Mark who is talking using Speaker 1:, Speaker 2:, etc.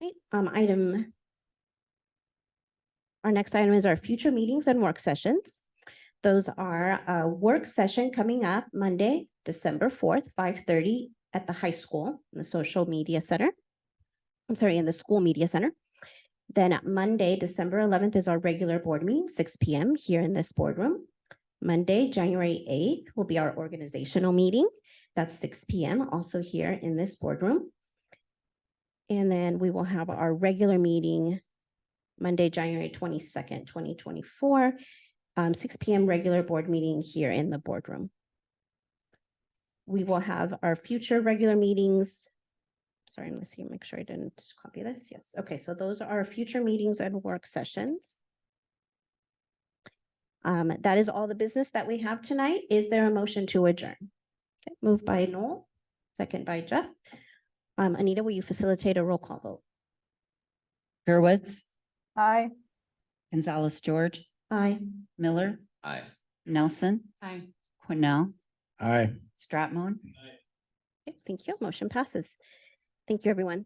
Speaker 1: right, um, item. Our next item is our future meetings and work sessions. Those are a work session coming up Monday, December fourth, five thirty at the high school, in the social media center. I'm sorry, in the school media center. Then at Monday, December eleventh is our regular board meeting, six P M here in this boardroom. Monday, January eighth will be our organizational meeting. That's six P M also here in this boardroom. And then we will have our regular meeting Monday, January twenty-second, twenty twenty-four, um, six P M regular board meeting here in the boardroom. We will have our future regular meetings. Sorry, I'm listening, make sure I didn't copy this. Yes, okay, so those are our future meetings and work sessions. Um, that is all the business that we have tonight. Is there a motion to adjourn? Okay, moved by Noel, second by Jeff. Um, Anita, will you facilitate a roll call vote?
Speaker 2: Gerwitz,
Speaker 3: Aye.
Speaker 2: Gonzalez, George,
Speaker 1: Aye.
Speaker 2: Miller,
Speaker 4: Aye.
Speaker 2: Nelson,
Speaker 3: Aye.
Speaker 2: Cornell,
Speaker 4: Aye.
Speaker 2: Stratmon.
Speaker 1: Thank you. Motion passes. Thank you, everyone.